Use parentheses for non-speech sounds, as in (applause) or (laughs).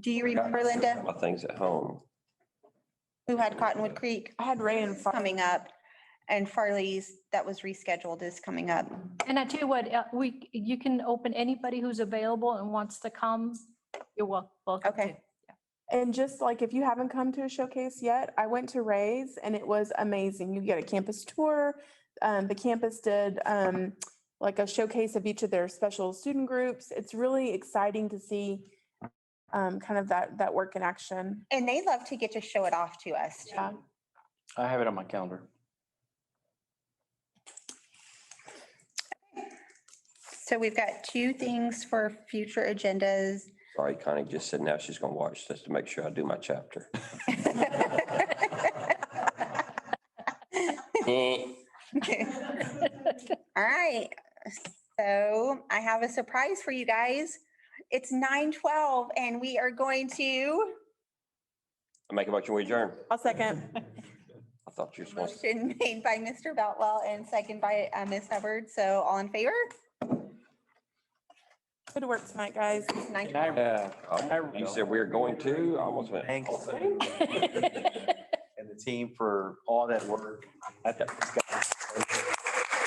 Do you remember, Linda, My things at home. who had Cottonwood Creek I had Ray and Far- coming up? And Farley's, that was rescheduled, is coming up. And I tell you what, uh, we, you can open anybody who's available and wants to come. You're wel- welcome. Okay. to. and just like if you haven't come to a showcase yet, I went to Ray's and it was amazing. You get a campus tour. Um, the campus did um, like a showcase of each of their special student groups. It's really exciting to see um, kind of that that work in action. And they love to get to show it off to us. too. Yeah. I have it on my calendar. So we've got two things for future agendas. (laughs) Sorry, Connie just said now she's gonna watch this to make sure I do my chapter. All right, so I have a surprise for you guys. It's nine twelve and we are going to I make a motion, we adjourn. I'll second. I thought you were supposed to. motion made by Mr. Beltwell and second by uh, Ms. Hubbard. So all in favor? Good work tonight, guys. Nine- Yeah. Oh, You said we are going to, I almost went. Thanks. (laughs) And the team for all that work. I think these guys-